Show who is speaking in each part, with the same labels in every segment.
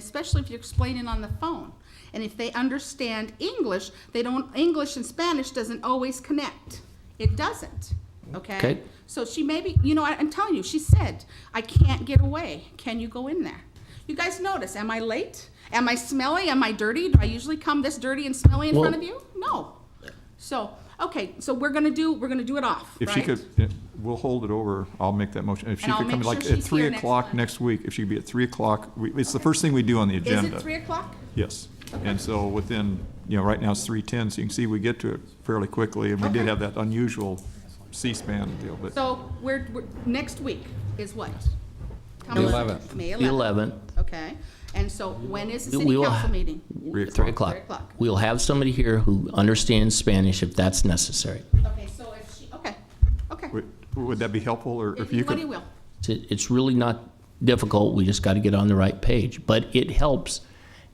Speaker 1: especially if you're explaining on the phone. And if they understand English, they don't, English and Spanish doesn't always connect. It doesn't, okay?
Speaker 2: Okay.
Speaker 1: So she maybe, you know, I, I'm telling you, she said, I can't get away. Can you go in there? You guys notice, am I late? Am I smelly? Am I dirty? Do I usually come this dirty and smelly in front
Speaker 2: Well-
Speaker 1: of you? No. So, okay, so we're gonna do, we're gonna do it off,
Speaker 3: If she
Speaker 1: right?
Speaker 3: could, yeah, we'll hold it over, I'll make that motion. If she
Speaker 1: And I'll
Speaker 3: could come
Speaker 1: make
Speaker 3: like
Speaker 1: sure
Speaker 3: at
Speaker 1: she's
Speaker 3: 3
Speaker 1: here next
Speaker 3: o'clock
Speaker 1: Monday.
Speaker 3: next week, if she could be at 3 o'clock, we- it's the first thing we do on the
Speaker 1: Is
Speaker 3: agenda.
Speaker 1: it three o'clock?
Speaker 3: Yes. And so within, you know, right now it's 3:10, so you can see we get to it fairly quickly. And we did
Speaker 1: Okay.
Speaker 3: have that unusual C-SPAN deal, but
Speaker 1: So we're, we're, next week is what? How
Speaker 4: The
Speaker 1: much?
Speaker 4: 11th.
Speaker 1: May
Speaker 2: The
Speaker 1: eleventh.
Speaker 2: 11th.
Speaker 1: Okay, and so when is the
Speaker 2: We
Speaker 1: city
Speaker 2: will-
Speaker 1: council meeting?
Speaker 3: Three
Speaker 2: Three
Speaker 3: o'clock.
Speaker 2: o'clock.
Speaker 1: Three o'clock.
Speaker 2: We'll have somebody here who understands Spanish if that's necessary.
Speaker 1: Okay, so if she, okay, okay.
Speaker 3: would would that be helpful, or
Speaker 1: If
Speaker 3: if you
Speaker 1: anybody
Speaker 3: could?
Speaker 1: will.
Speaker 2: It's- It's really not difficult, we just got to get on the right page. But it helps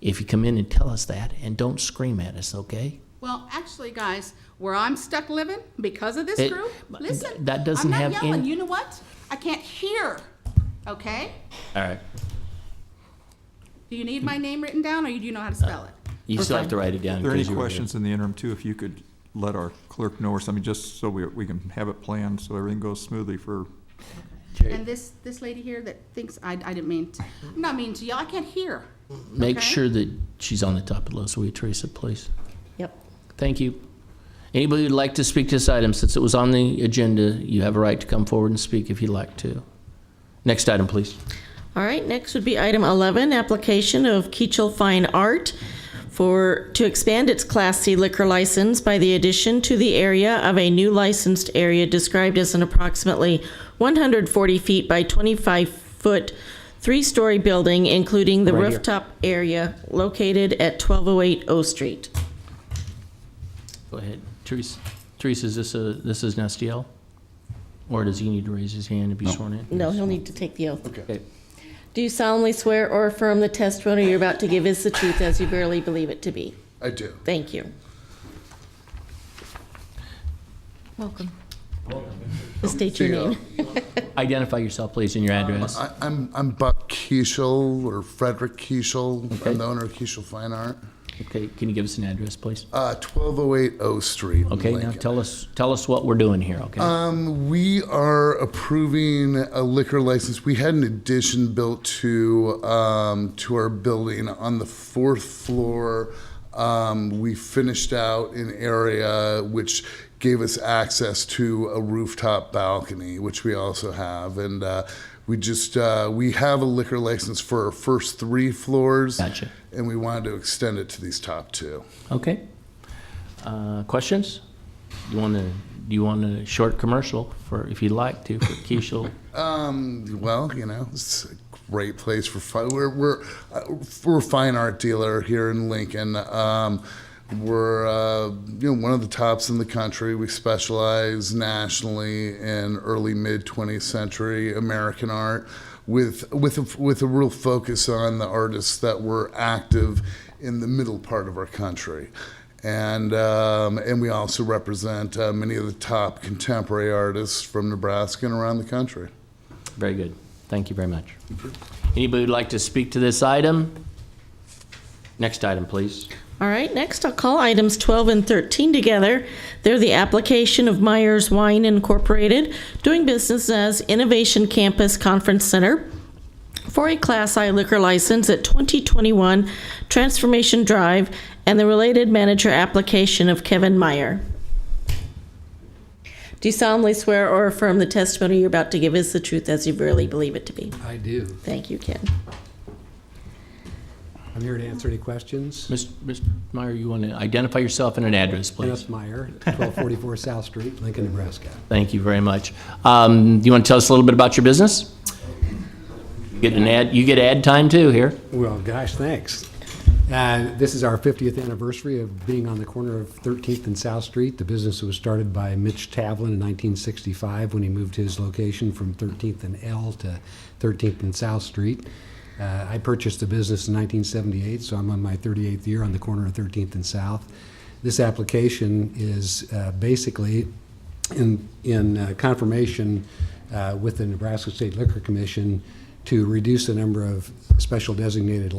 Speaker 2: if you come in and tell us that, and don't scream at us, okay?
Speaker 1: Well, actually, guys, where I'm stuck living because of this
Speaker 2: It-
Speaker 1: group,
Speaker 2: but
Speaker 1: listen,
Speaker 2: th- that doesn't
Speaker 1: I'm
Speaker 2: have
Speaker 1: not yelling.
Speaker 2: any-
Speaker 1: You know what? I can't hear. Okay.
Speaker 2: All right.
Speaker 1: Do you need my name written down, or you do you know how to spell it?
Speaker 2: You still have to write it down.
Speaker 3: Are there any
Speaker 2: 'cause you were here.
Speaker 3: questions in the interim, too, if you could let our clerk know or something, just so we we can have it planned, so everything goes smoothly for
Speaker 2: Jerry,
Speaker 1: And this this lady here that thinks I, I didn't mean to, I'm not mean to yell. I can't hear.
Speaker 2: Make
Speaker 1: okay.
Speaker 2: sure that she's on the top of the list, will you, Teresa, please?
Speaker 5: Yep.
Speaker 2: Thank you. Anybody who'd like to speak to this item, since it was on the agenda, you have a right to come forward and speak if you'd like to. Next item, please.
Speaker 5: All right, next would be item 11, application of Keachel Fine Art for, to expand its Class C liquor license by the addition to the area of a new licensed area described as an approximately 140 feet by 25-foot, three-story building, including the
Speaker 2: Right here.
Speaker 5: rooftop area located at 1208 O Street.
Speaker 2: Go ahead. Teresa, Teresa, is this a, this is Nestiel? Or does he need to raise his hand to be sworn in?
Speaker 5: No, he'll need to take the oath.
Speaker 2: Okay.
Speaker 5: Do you solemnly swear or affirm the testimony you're about to give is the truth as you verily believe it to be?
Speaker 6: I do.
Speaker 5: Thank you. Welcome. State your name.
Speaker 2: Identify yourself, please, and your address.
Speaker 6: I, I'm, I'm Buck Kiesel or Frederick Kiesel. I'm the owner of Kiesel Fine Art.
Speaker 2: Okay, can you give us an address, please?
Speaker 6: Uh, 1208 O Street. in
Speaker 2: Okay, now
Speaker 6: Lincoln.
Speaker 2: tell us, tell us what we're doing here, okay?
Speaker 6: Um, we are approving a liquor license. We had an addition built to um, to our building on the fourth floor. Um, we finished out an area which gave us access to a rooftop balcony, which we also have, and uh, we just uh, we have a liquor license for our first three floors,
Speaker 2: Gotcha.
Speaker 6: and we wanted to extend it to these top two.
Speaker 2: Okay. Uh, Questions? You want to, do you want a short commercial for, if you'd like to, for Keishel?
Speaker 6: Um, well, you know, it's a great place for fun. We're we're uh, we're a fine art dealer here in Lincoln. Um, we're uh, you know one of the tops in the country. We specialize nationally in early mid 20th century American art, with with a, with a real focus on the artists that were active in the middle part of our country and um, and we also represent uh, many of the top contemporary artists from Nebraska and around the country.
Speaker 2: Very good. Thank you very much. Anybody who'd like to speak to this item? Next item, please.
Speaker 5: All right, next I'll call items 12 and 13 together. They're the application of Myers Wine Incorporated, doing business as Innovation Campus Conference Center, for a Class I liquor license at 2021 Transformation Drive and the related manager application of Kevin Meyer. Do you solemnly swear or affirm the testimony you're about to give is the truth as you really believe it to be?
Speaker 7: I do.
Speaker 5: Thank you, Ken.
Speaker 7: I'm here to answer any questions.
Speaker 2: Mis- Mr. Meyer, you want to identify yourself and an address, please?
Speaker 7: Kenneth Meyer, 1244 South Street, Lincoln, Nebraska.
Speaker 2: Thank you very much. Um, Do you want to tell us a little bit about your business? You Get an ad, you get ad time too here.
Speaker 7: Well, gosh, thanks. Uh, This is our 50th anniversary of being on the corner of 13th and South Street. The business was started by Mitch Tavlin in 1965 when he moved his location from 13th and L to 13th and South Street. Uh, I purchased the business in 1978, so I'm on my 38th year on the corner of 13th and South. This application is uh, basically in, in uh, confirmation uh, with the Nebraska State Liquor Commission to reduce the number of special designated